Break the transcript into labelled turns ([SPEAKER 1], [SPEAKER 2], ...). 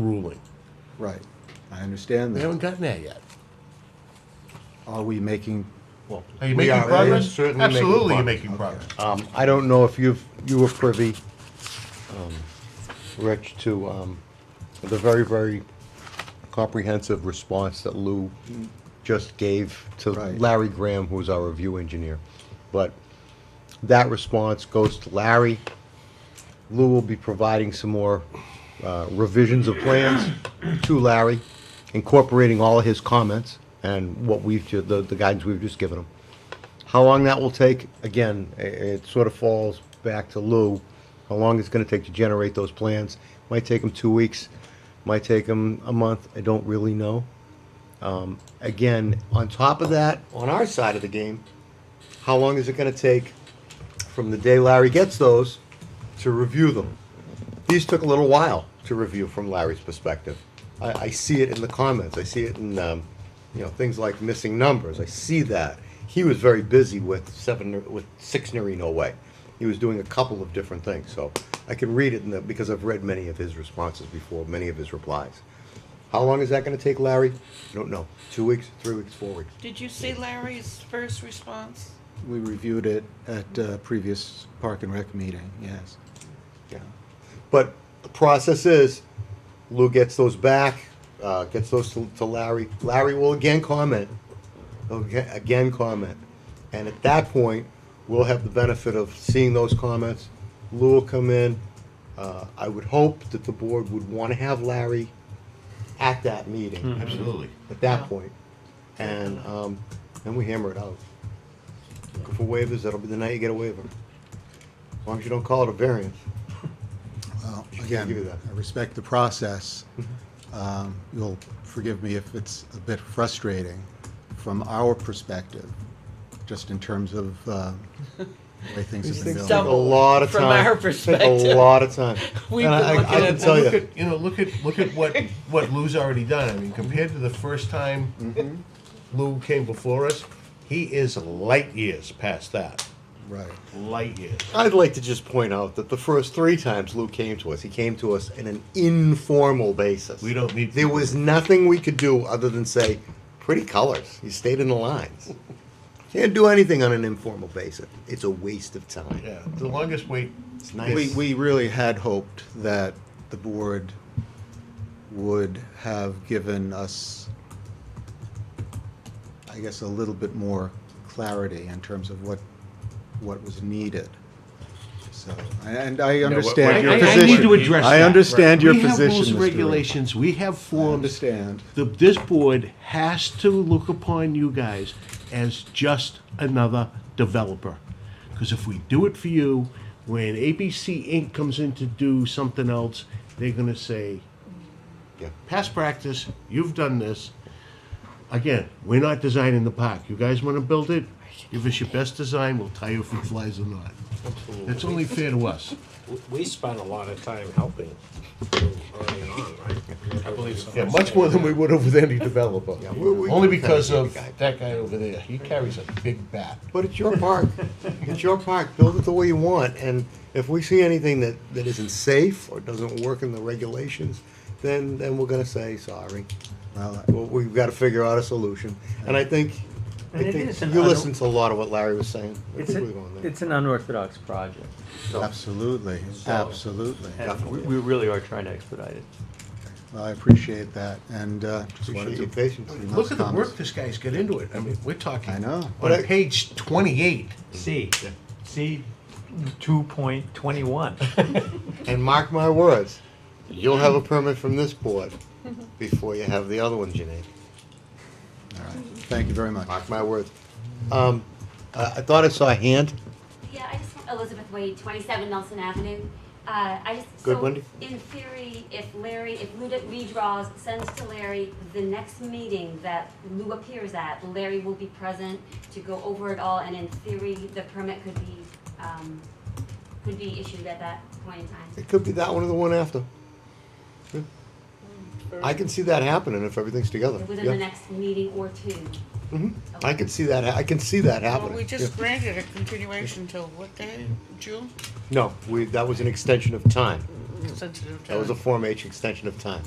[SPEAKER 1] ruling.
[SPEAKER 2] Right, I understand
[SPEAKER 1] We
[SPEAKER 2] that.
[SPEAKER 1] haven't gotten there yet.
[SPEAKER 2] Are we making,
[SPEAKER 3] Well,
[SPEAKER 1] Are you
[SPEAKER 3] we
[SPEAKER 1] making
[SPEAKER 3] are
[SPEAKER 1] progress?
[SPEAKER 3] certainly making
[SPEAKER 1] Absolutely, you're
[SPEAKER 3] progress.
[SPEAKER 1] making progress.
[SPEAKER 3] Um, I don't know if you've, you were privy, um, Rich, to, um, the very, very comprehensive response that Lou just gave to
[SPEAKER 2] Right.
[SPEAKER 3] Larry Graham, who's our review engineer. But that response goes to Larry. Lou will be providing some more, uh, revisions of plans to Larry, incorporating all of his comments and what we've, ju- the, the guidance we've just given him. How long that will take, again, i- it sort of falls back to Lou, how long it's gonna take to generate those plans. Might take them two weeks, might take them a month, I don't really know. Um, Again, on top of that, on our side of the game, how long is it gonna take from the day Larry gets those to review them? These took a little while to review from Larry's perspective. I, I see it in the comments. I see it in, um, you know, things like missing numbers. I see that. He was very busy with seven, with six Narino Way. He was doing a couple of different things, so I can read it in the, because I've read many of his responses before, many of his replies. How long is that gonna take, Larry? I don't know. Two weeks, three weeks, four weeks?
[SPEAKER 4] Did you see Larry's first response?
[SPEAKER 2] we reviewed it at uh, previous Park and Rec meeting, yes.
[SPEAKER 3] Yeah. But the process is, Lou gets those back, uh, gets those to, to Larry. Larry will again comment, okay, again comment. And at that point, we'll have the benefit of seeing those comments. Lou will come in. Uh, I would hope that the board would want to have Larry at that
[SPEAKER 1] Hmm.
[SPEAKER 3] meeting,
[SPEAKER 1] Absolutely.
[SPEAKER 3] at that point. And, um, then we hammer it out. Looking for waivers, that'll be the night you get a waiver. As long as you don't call it a variance.
[SPEAKER 2] Well,
[SPEAKER 3] Should
[SPEAKER 2] again,
[SPEAKER 3] give you that.
[SPEAKER 2] I respect the process. Um, You'll forgive me if it's a bit frustrating from our perspective, just in terms of um, the way things have
[SPEAKER 3] These
[SPEAKER 2] been built.
[SPEAKER 3] things take a
[SPEAKER 4] Double
[SPEAKER 3] lot of time.
[SPEAKER 4] from our
[SPEAKER 3] Take
[SPEAKER 4] perspective.
[SPEAKER 3] a lot of time.
[SPEAKER 4] We've
[SPEAKER 3] And
[SPEAKER 4] been
[SPEAKER 3] I- I-
[SPEAKER 4] looking
[SPEAKER 3] I
[SPEAKER 4] at
[SPEAKER 3] can
[SPEAKER 4] this.
[SPEAKER 3] tell
[SPEAKER 1] Look
[SPEAKER 3] you,
[SPEAKER 1] at, you know, look at, look at what, what Lou's already done. I mean, compared to the first
[SPEAKER 3] Mm-hmm.
[SPEAKER 1] time Lou came before us, he is light years past that.
[SPEAKER 2] Right,
[SPEAKER 1] Light years.
[SPEAKER 3] I'd like to just point out that the first three times Lou came to us, he came to us in an informal basis.
[SPEAKER 1] We don't need-
[SPEAKER 3] There was nothing we could do other than say, pretty colors. You stayed in the lines. Can't do anything on an informal basis. It's a waste of time.
[SPEAKER 1] Yeah, the longest wait,
[SPEAKER 3] It's
[SPEAKER 2] We,
[SPEAKER 3] nice.
[SPEAKER 2] we really had hoped that the board would have given us, I guess, a little bit more clarity in terms of what, what was needed. So, and I understand your
[SPEAKER 1] I- I-
[SPEAKER 2] position.
[SPEAKER 1] I need to address
[SPEAKER 2] I
[SPEAKER 1] that.
[SPEAKER 2] understand your
[SPEAKER 5] We have
[SPEAKER 2] position,
[SPEAKER 5] rules and
[SPEAKER 2] Mr. Ray.
[SPEAKER 5] regulations, we have
[SPEAKER 2] I
[SPEAKER 5] forms.
[SPEAKER 2] understand.
[SPEAKER 5] The, this board has to look upon you guys as just another developer. Because if we do it for you, when ABC Inc. comes in to do something else, they're gonna say,
[SPEAKER 3] Yeah.
[SPEAKER 5] past practice, you've done this. Again, we're not designing the park. You guys wanna build it? Give us your best design, we'll tell you if it flies or not. That's only fair to us.
[SPEAKER 6] We spent a lot of time helping early on, right? I believe so.
[SPEAKER 1] yeah, much more than we would have with any developer.
[SPEAKER 3] we- we-
[SPEAKER 1] Only because
[SPEAKER 3] we-
[SPEAKER 1] of that guy over there. He carries a big bat.
[SPEAKER 3] But it's your park. It's your park. Build it the way you want. And if we see anything that, that isn't safe or doesn't work in the regulations, then, then we're gonna say, sorry.
[SPEAKER 2] Well,
[SPEAKER 3] Well, we've gotta figure out a solution. And I think, I
[SPEAKER 7] And it
[SPEAKER 3] think,
[SPEAKER 7] is an
[SPEAKER 3] you
[SPEAKER 7] un-
[SPEAKER 3] listened to a lot of what Larry was saying. I
[SPEAKER 7] It's,
[SPEAKER 3] think
[SPEAKER 7] a-
[SPEAKER 3] we're going there.
[SPEAKER 7] it's an unorthodox project.
[SPEAKER 2] absolutely, absolutely.
[SPEAKER 7] And we, we really are trying to expedite it.
[SPEAKER 2] I appreciate that, and uh, just wanted
[SPEAKER 3] Appreciate
[SPEAKER 2] to.
[SPEAKER 3] your patience.
[SPEAKER 2] bring those
[SPEAKER 1] Look at the
[SPEAKER 2] comments.
[SPEAKER 1] work this guy's got into it. I mean, we're talking.
[SPEAKER 2] I know.
[SPEAKER 3] But I-
[SPEAKER 1] On page twenty-eight.
[SPEAKER 7] C, C two point twenty-one.
[SPEAKER 3] And mark my words, you'll have a permit from this board before you have the other one, Janine.
[SPEAKER 2] All right. Thank you very much.
[SPEAKER 3] Mark my words. Um, I, I thought I saw a hand.
[SPEAKER 8] Yeah, I just want Elizabeth Wade, 27 Nelson Avenue. Uh, I just,
[SPEAKER 3] Good,
[SPEAKER 8] so
[SPEAKER 3] Wendy.
[SPEAKER 8] in theory, if Larry, if Lou d- redraws, sends to Larry the next meeting that Lou appears at, Larry will be present to go over it all, and in theory, the permit could be, um, could be issued at that point in time.
[SPEAKER 3] It could be that one or the one after. Yeah. I can see that happening if everything's together.
[SPEAKER 8] Within
[SPEAKER 3] Yeah.
[SPEAKER 8] the next meeting or two.
[SPEAKER 3] Mhm. I can see that, ha- I can see that
[SPEAKER 4] Well,
[SPEAKER 3] happening.
[SPEAKER 4] we
[SPEAKER 3] Yeah.
[SPEAKER 4] just granted a continuation till what day, June?
[SPEAKER 3] No, we, Mm. that was an extension of time.
[SPEAKER 4] sensitive time.
[SPEAKER 3] That was a Form H extension of time.